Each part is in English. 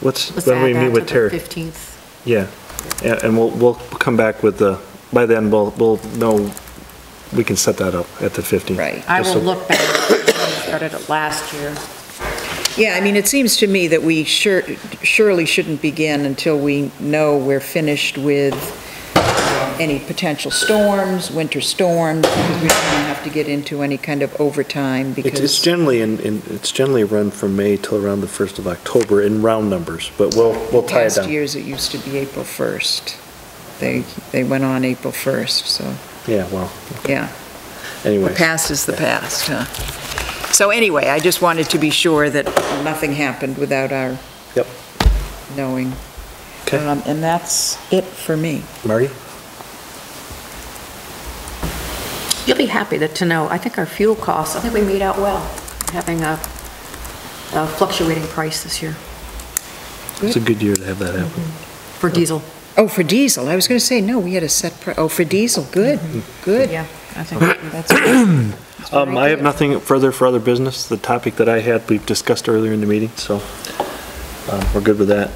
what's, Let's when we add that meet with to the Terry? 15th. Yeah, and and we'll, we'll come back with the, by then, we'll, we'll know, we can set that up at the 15th. Right. I Just will so- look back, I started it last year. Yeah, I mean, it seems to me that we sure- surely shouldn't begin until we know we're finished with any potential storms, winter storms, because we don't have to get into any kind of overtime It's it's because, generally, in in it's generally run from May till around the 1st of October in round numbers, but we'll, we'll tie it past down. years, it used to be April 1st. They, they went on April 1st, so, Yeah, well, yeah. The anyway. past is the past, huh? So anyway, I just wanted to be sure that nothing happened without our Yep. knowing. Okay. Uh, Um, And that's it for me. Marty? You'll be happy that- to know, I think our fuel costs, I think we made out well, having a a fluctuating price this year It's a good year to have that happen. for diesel. Oh, for diesel, I was going to say, no, we had a set, pri- oh, for diesel, good, good. Yeah, I think That's that's Um, very I have good. nothing further for other business. The topic that I had, we've discussed earlier in the meeting, so um, we're good with that.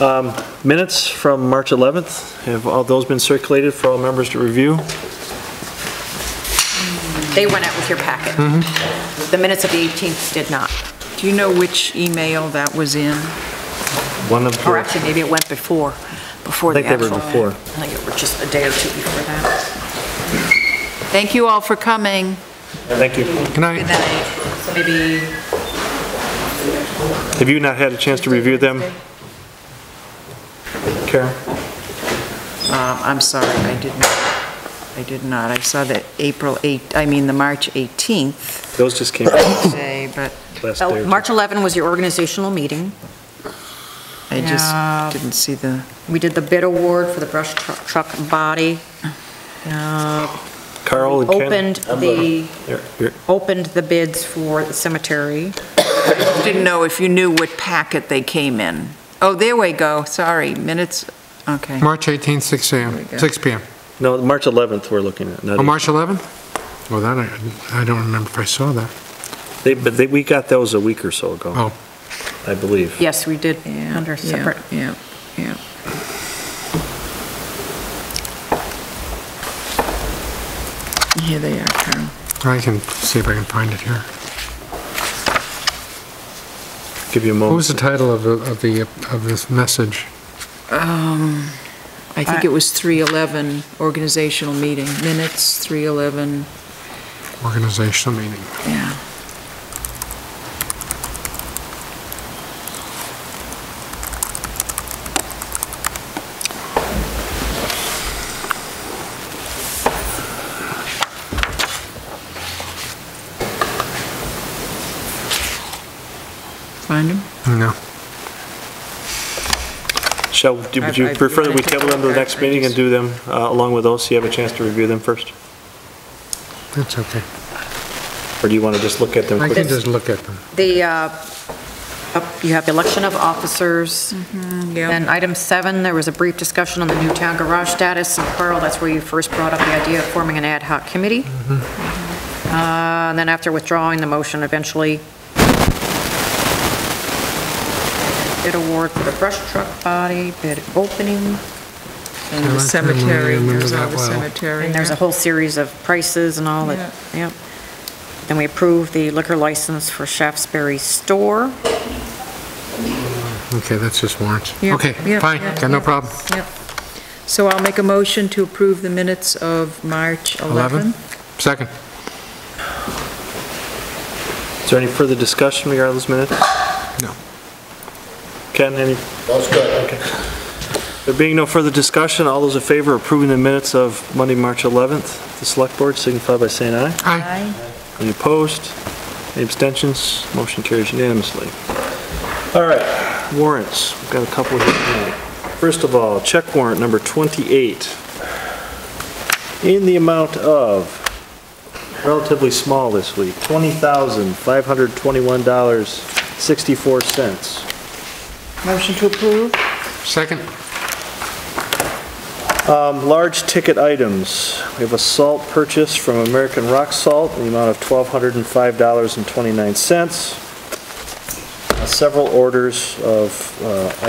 Um, Minutes from March 11th, have all those been circulated for all members to review? they went out with your packet. The minutes of the 18th did not, Do you know which email that was in? One of or the, actually, maybe it went before, before I the think they actual. were before. I think it was just a day or two before that. Thank you all for coming. Thank you. Can I? Good night. So maybe Have you not had a chance to review them? Karen? Um, I'm sorry, I did not, I did not. I saw the April 8, I mean, the March 18th Those just came out day, but last Oh, day. March 11 was your organizational meeting. I Yeah. just didn't see the, We did the bid award for the brush tru- truck body. Uh, Carl and Ken? Opened the, Here, here. opened the bids for the cemetery. didn't know if you knew what packet they came in. Oh, there we go, sorry, minutes, okay. March 18th, 6 There we go. AM, 6 PM. No, March 11th we're looking at. not- On Oh, March 11th? Well, that, I I don't remember if I saw that. They, but they, we got those a week or so ago, Oh, I believe. Yes, we did Yeah, under yeah, separate. Yeah, yeah. Here they are, Carl. I can see if I can find it here. Give you a moment. What was the title of, the- of the, of this message? Um, I think I- it was 311, organizational meeting, minutes, 311, Organizational meeting. yeah. Find them? No. Shall, do- would I- you I- prefer that we I think table them to the I'll- next meeting and do them uh, along with those, so you have a chance to review them first? That's okay. Or do you want to just look at them I quickly? can just look at them. The, uh, up- you have election of officers. yeah. And item seven, there was a brief discussion on the new town garage status. And Carl, that's where you first brought up the idea of forming an ad hoc committee. Uh, And then after withdrawing the motion, eventually bid award for the brush truck body, bid opening, And Yeah, I the cemetery, remember there's all that the well. cemetery. and there's a yeah. whole series of prices and all that, yep. Then we approved the liquor license for Shaftesbury Store. Okay, that's just warrants. Yeah, Okay, yeah, fine, yeah, got no yeah. problem. Yep. So I'll make a motion to approve the minutes of March 11th. 11? Second. Is there any further discussion regarding those minutes? No. Ken, any? There being no further discussion, all those in favor of approving the minutes of Monday, March 11th, the select board signify by saying aye. Aye. Any opposed? Any abstentions? Motion carries unanimously. All right, warrants. We've got a couple here tonight. First of all, check warrant number 28 in the amount of, relatively small this week, $20,521.64. Motion to approve? Second. Um, Large ticket items. We have a salt purchase from American Rock Salt in the amount of $1,205.29. Several orders of uh,